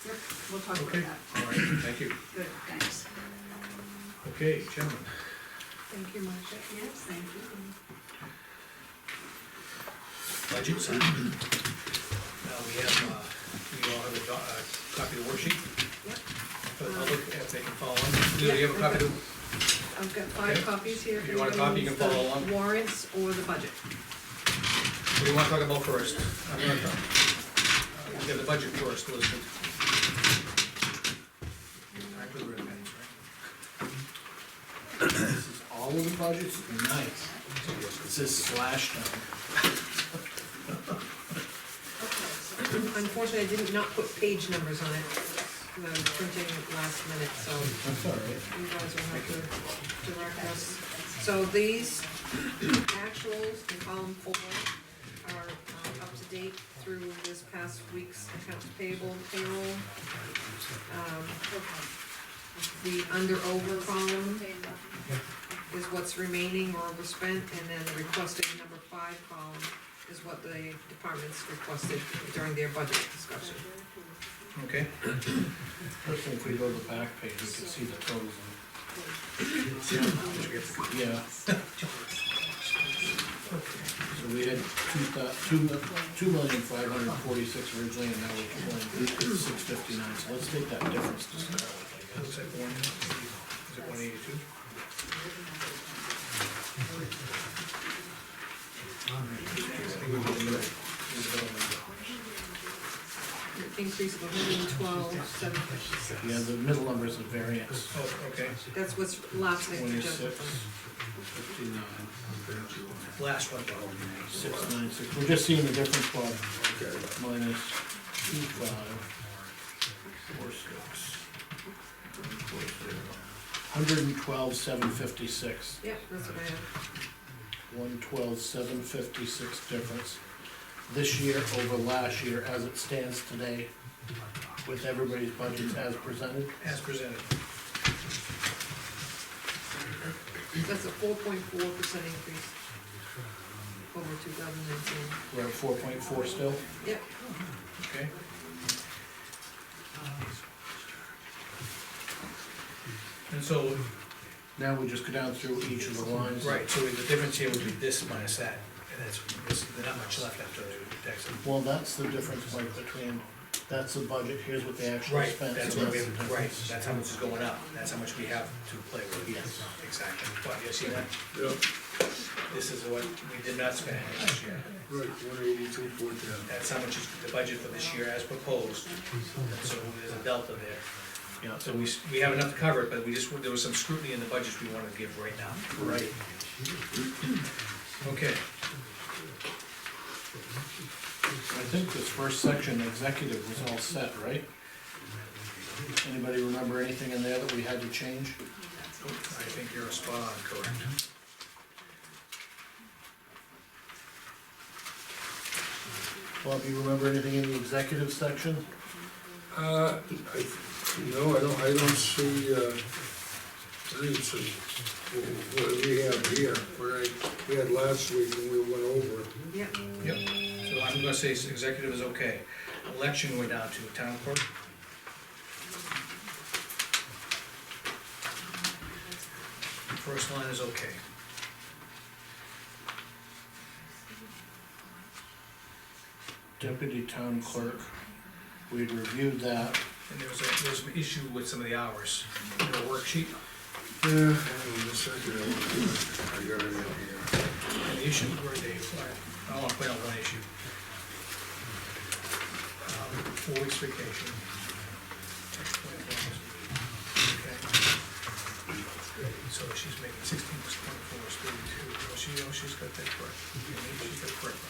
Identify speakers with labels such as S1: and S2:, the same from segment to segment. S1: Yep, we'll talk about
S2: Okay.
S1: that.
S2: All right, thank you.
S1: Good, thanks.
S2: Okay, gentlemen,
S1: Thank you, Marcia. Yes, thank you.
S2: budgets. Now, we have, uh, we all have a, do- a copy of the worksheet
S1: Yep,
S2: for the public, if they can follow along. Do you have a copy of the-
S1: I've got five
S2: Okay.
S1: copies here. if
S2: You want a
S1: anybody
S2: copy, you
S1: wants
S2: can
S1: the
S2: follow along.
S1: Warrants or the budget.
S2: what do you wanna talk about first? I'm gonna talk. uh, We have the budget first, Elizabeth. I could read that, right?
S3: This is all of the budgets, nice. It says slash down.
S4: Unfortunately, I didn't not put page numbers on it, 'cause I was printing it last minute, so
S3: That's all right.
S4: you guys will have to direct us. So these actuals in column four are uh, up to date through this past week's accounts payable payroll. Um, The under over column is what's remaining or overspent, and then the requested number five column is what the departments requested during their budget discussion.
S2: Okay,
S3: Especially if we go to the back page, we can see the totals. and- Yeah. So we had two thou, two, mil- two million five hundred and forty-six originally, and now we're pulling six fifty-nine, so let's take that difference to start with, I guess.
S2: looks like one, is it one eighty-two?
S4: Increase of hundred and twelve, seven fifty-six.
S3: Yeah, the middle number is the variance,
S2: Oh, okay,
S4: That's what's last night's agenda.
S3: twenty-six, fifty-nine.
S2: last one.
S3: Six nine six, we're just seeing the difference, Bob. Minus two five, four six. Hundred and twelve, seven fifty-six,
S4: Yeah, that's what I have.
S3: one twelve, seven fifty-six difference. This year over last year as it stands today with everybody's budgets as presented.
S2: As presented.
S4: That's a four point four percent increase over two thousand nineteen.
S3: We're at four point four still.
S4: Yeah,
S2: Okay. And so,
S3: Now we just go down through each of the lines.
S2: right, so the difference here would be this minus that, and that's, there's not much left after the tax.
S3: Well, that's the difference, Mike, between, that's the budget, here's what they actually
S2: Right,
S3: spent.
S2: that's
S3: so
S2: what we,
S3: the
S2: right,
S3: difference.
S2: that's how much is going up, that's how much we have to play with.
S3: Yes.
S2: Exactly, but you see that? This is what we did not spend last year,
S5: Right, one eighty-two, four ten.
S2: that's how much is the budget for this year as proposed, so there's a delta there.
S3: Yeah,
S2: So we, s- we have enough to cover it, but we just, there was some scrutiny in the budgets we wanted to give right now.
S3: right.
S2: Okay,
S3: I think this first section, executive, was all set, right? Anybody remember anything in there that we had to change?
S2: I think you're spot on, correct.
S3: Bob, you remember anything in the executive section?
S5: Uh, I, no, I don't, I don't see, uh, I didn't see what we have here, what I, we had last week and we went over.
S4: yeah,
S2: Yep, so I'm gonna say executive is okay. Election we're down to, town clerk, first line is okay.
S3: Deputy town clerk, we'd reviewed that.
S2: And there was, a- there was an issue with some of the hours in the worksheet,
S5: Yeah, hang on a second, I want to- I got it up here.
S2: and the issue were they, I wanna point out one issue. Um, Four weeks vacation. Okay. So she's making sixteen point four, thirty-two, she, oh, she's got that correct, she's got it correct.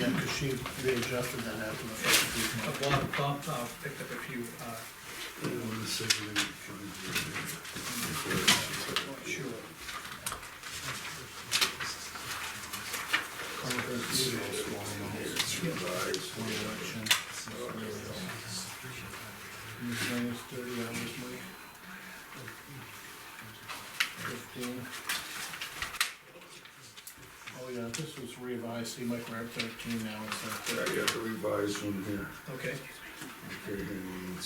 S3: Yeah, because she readjusted that after the
S2: Uh,
S3: first week.
S2: Bob, Bob uh, picked up a few, uh,
S3: Oh,
S5: I want to see when it comes here.
S2: sure,
S3: Conference, usual small amounts,
S5: It's revised.
S3: one election. Minus thirty hours, Mike. Fifteen. Oh yeah, this was revised, see, Mike, we're at thirteen now instead of
S5: I got the revised one here.
S2: okay.
S5: Okay, hang on one